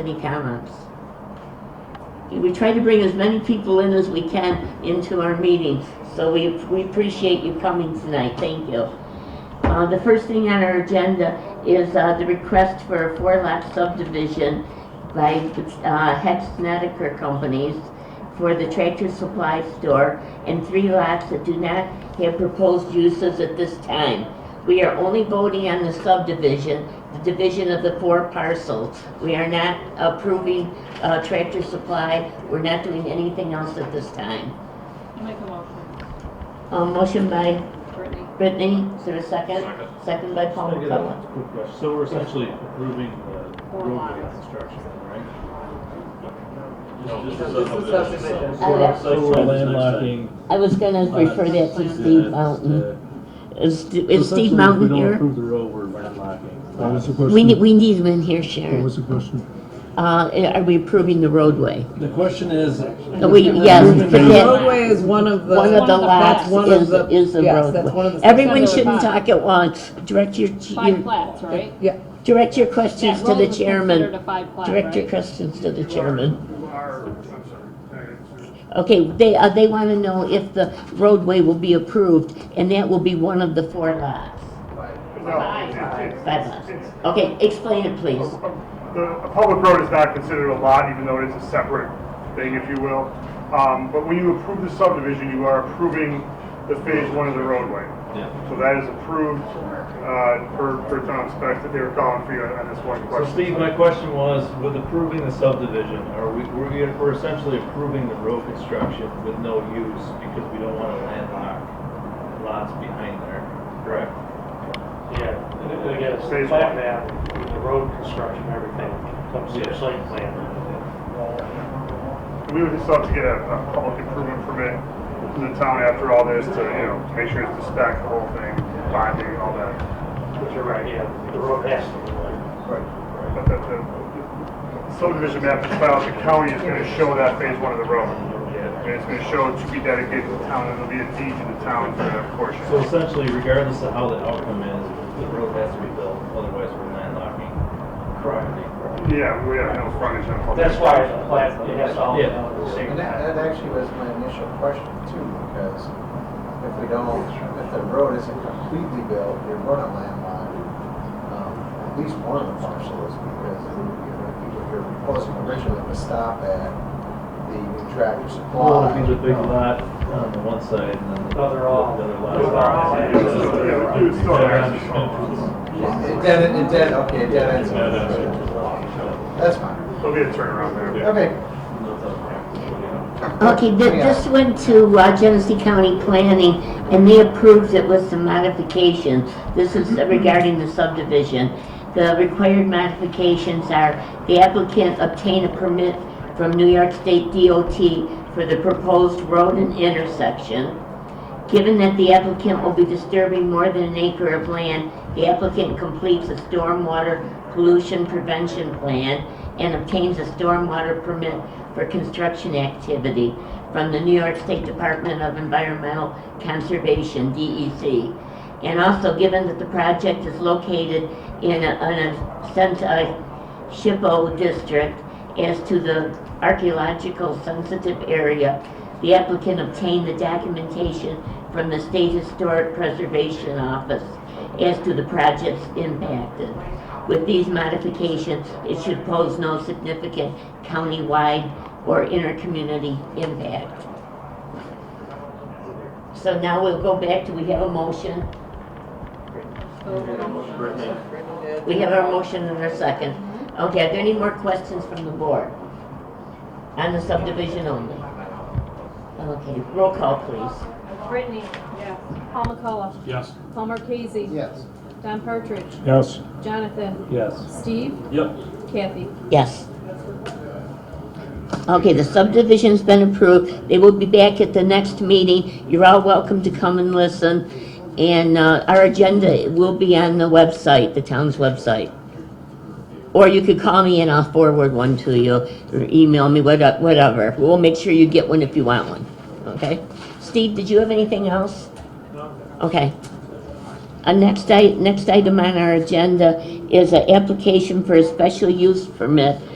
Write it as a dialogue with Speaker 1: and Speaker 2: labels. Speaker 1: Any comments? We try to bring as many people in as we can into our meeting, so we, we appreciate you coming tonight, thank you. Uh, the first thing on our agenda is, uh, the request for a four-lot subdivision by, uh, Hex Snedeker Companies for the tractor supply store and three lots that do not have proposed uses at this time. We are only voting on the subdivision, the division of the four parcels. We are not approving uh, Tractor Supply, we're not doing anything else at this time.
Speaker 2: I'll make a motion.
Speaker 1: Uh, Motion by
Speaker 2: Brittany?
Speaker 1: Brittany, is there a second?
Speaker 3: Second.
Speaker 1: Second by Paul
Speaker 4: Can I get
Speaker 1: McCullough.
Speaker 4: a quick question? So we're essentially approving the
Speaker 2: Four
Speaker 4: roadway
Speaker 2: lots.
Speaker 4: construction, right?
Speaker 3: No, this
Speaker 4: Just- just-
Speaker 3: is a subdivision.
Speaker 1: Oh, yeah.
Speaker 4: So we're landlocking.
Speaker 1: I was gonna refer that to
Speaker 4: uh,
Speaker 1: Steve Mountain. Is St- is Steve
Speaker 4: Essentially,
Speaker 1: Mountain
Speaker 4: If we don't
Speaker 1: here?
Speaker 4: approve the road, we're landlocking.
Speaker 5: What was the
Speaker 1: We need,
Speaker 5: question?
Speaker 1: we need him in here,
Speaker 5: What
Speaker 1: Sharon.
Speaker 5: was the question?
Speaker 1: Uh, Are we approving the roadway?
Speaker 6: The question is.
Speaker 1: Uh, We, yes,
Speaker 6: Approving
Speaker 1: for
Speaker 6: the
Speaker 1: that-
Speaker 7: Roadway is one of the.
Speaker 1: One of the lots
Speaker 7: That's one of
Speaker 1: is,
Speaker 7: the-
Speaker 1: is the
Speaker 7: yes, that's one of
Speaker 1: roadway.
Speaker 7: the-
Speaker 1: Everyone
Speaker 2: That's one
Speaker 1: shouldn't
Speaker 2: of the
Speaker 1: talk at once. Direct your,
Speaker 2: Five
Speaker 1: your,
Speaker 2: plats, right?
Speaker 7: Yeah,
Speaker 1: direct your questions
Speaker 2: That
Speaker 1: to
Speaker 2: road
Speaker 1: the
Speaker 2: was
Speaker 1: chairman.
Speaker 2: Considered a five plat,
Speaker 1: Direct your
Speaker 2: right?
Speaker 1: questions to the chairman.
Speaker 8: You are, I'm sorry.
Speaker 1: Okay, they, uh, they wanna know if the roadway will be approved, and that will be one of the four lots.
Speaker 8: No, it's- it's-
Speaker 1: Five
Speaker 8: it's-
Speaker 1: lots.
Speaker 8: it's-
Speaker 1: Okay, explain it, please.
Speaker 8: a- a- A public road is not considered a lot, even though it is a separate thing, if you will. Um, But when you approve the subdivision, you are approving the phase one of the roadway.
Speaker 4: Yeah.
Speaker 8: So that is approved uh, per per town specs that they were calling for you on this one
Speaker 4: So
Speaker 8: question.
Speaker 4: Steve, my question was, with approving the subdivision, are we, we're, we- we're essentially approving the road construction with no use because we don't wanna landlock lots behind there, correct?
Speaker 9: Yeah, and then again, it's the plan map, the road construction, everything comes to the site plan.
Speaker 8: We would just have to get a a public improvement permit from the town after all this to, you know, make sure it's the spec, the whole thing, binding, all that.
Speaker 9: But you're right, yeah, the road has to be like,
Speaker 8: But the- the subdivision map that's filed with the county is gonna show that phase one of the road. And it's gonna show it to be dedicated to the town, and there'll be a deed to the town for that portion.
Speaker 4: So essentially, regardless of how the outcome is, the road has to be built, otherwise we're landlocking property.
Speaker 8: Yeah, we have no frontage on public.
Speaker 9: that's why it's a plat, it has all
Speaker 4: Yeah.
Speaker 9: the same.
Speaker 10: And that, that actually was my initial question too, because if we don't, if the road isn't completely built, you're gonna landlock, um, at least one of the parcels, because, you know, people here proposing originally to stop at the new tractor
Speaker 4: Well,
Speaker 10: supply.
Speaker 4: it'd be the Oh, big lot on the one side and then the
Speaker 9: No, they're all-
Speaker 4: the other
Speaker 9: they're all-
Speaker 4: lot.
Speaker 8: Yeah, it's still- yeah, it's still there.
Speaker 10: It it then, it then, okay, it then ends up. That's fine.
Speaker 8: There'll be a turnaround there.
Speaker 10: Okay,
Speaker 1: Okay, th- this went to uh, Genesee County Planning, and they approved it with some modifications. This is regarding the subdivision. The required modifications are the applicant obtain a permit from New York State DOT for the proposed road and intersection. Given that the applicant will be disturbing more than an acre of land, the applicant completes a stormwater pollution prevention plan and obtains a stormwater permit for construction activity from the New York State Department of Environmental Conservation, DEC. And also, given that the project is located in a, in a, uh, sense, a SHPO district, as to the archaeological sensitive area, the applicant obtained the documentation from the State Historic Preservation Office as to the projects impacted. With these modifications, it should pose no significant countywide or intercommunity impact. So now we'll go back to, we have a motion. We have our motion and our second. Okay, are there any more questions from the board? On the subdivision only? Okay, roll call, please.
Speaker 2: Brittany? Yes. Paul McCullough?
Speaker 3: Yes.
Speaker 2: Paul Marquesi?
Speaker 10: yes.
Speaker 2: Don Partridge?
Speaker 5: Yes.
Speaker 2: Jonathan?
Speaker 4: Yes.
Speaker 2: Steve?
Speaker 3: Yep.
Speaker 2: Kathy?
Speaker 1: Yes. Okay, the subdivision's been approved. They will be back at the next meeting. You're all welcome to come and listen. And uh, our agenda will be on the website, the town's website. Or you could call me and I'll forward one to you, or email me, what- whatever. We'll make sure you get one if you want one, okay? Steve, did you have anything else? Okay. Uh, next i- next item on our agenda is an application for a special use permit